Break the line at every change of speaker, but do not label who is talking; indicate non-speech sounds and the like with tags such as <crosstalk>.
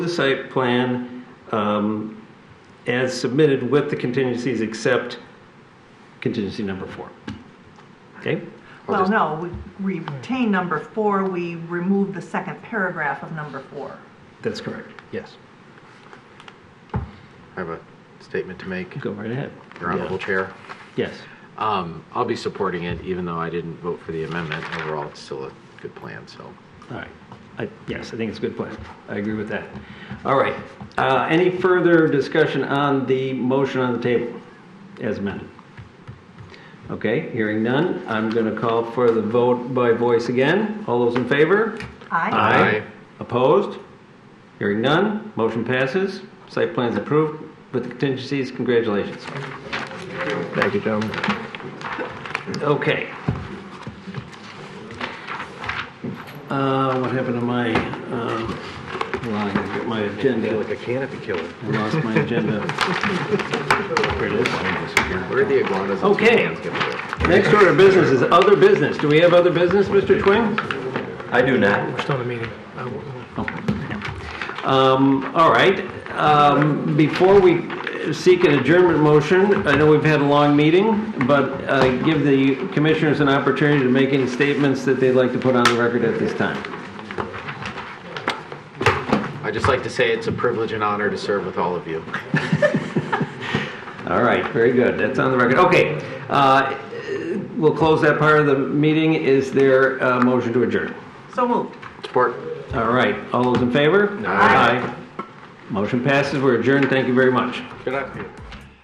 the site plan um, as submitted with the contingencies except contingency number four. Okay?
Well, no, we retain number four, we remove the second paragraph of number four.
That's correct. Yes.
I have a statement to make,
Go right ahead.
Your Honorable Chair.
Yes.
Um, I'll be supporting it, even though I didn't vote for the amendment. Overall, it's still a good plan, so.
All right. I- Yes, I think it's a good plan. I agree with that. All right. Uh, Any further discussion on the motion on the table as amended? Okay, hearing none, I'm going to call for the vote by voice again. All those in favor?
Aye.
Aye.
Opposed? Hearing none, motion passes. Site plan's approved with the contingencies. Congratulations.
Thank you, gentlemen.
Okay. Uh, What happened to my, um, hold on, I gotta get my agenda.
a canopy killer.
<laughs> I lost my agenda. Here it is.
Where are the iguanas?
Okay. Next order of business is other business. Do we have other business, Mr. Twing? Oh,
I do not.
Still in a meeting.
Um, All right. Um, Before we seek an adjournment motion, I know we've had a long meeting, but uh, give the commissioners an opportunity to make any statements that they'd like to put on the record at this time.
I'd just like to say it's a privilege and honor to serve with all of you.
All right, very good. That's on the record. Okay. uh, We'll close that part of the meeting. Is there a motion to adjourn?
So moved.
Support.
All right, all those in favor?
Aye.
Motion passes, we're adjourned, thank you very much.
Good afternoon.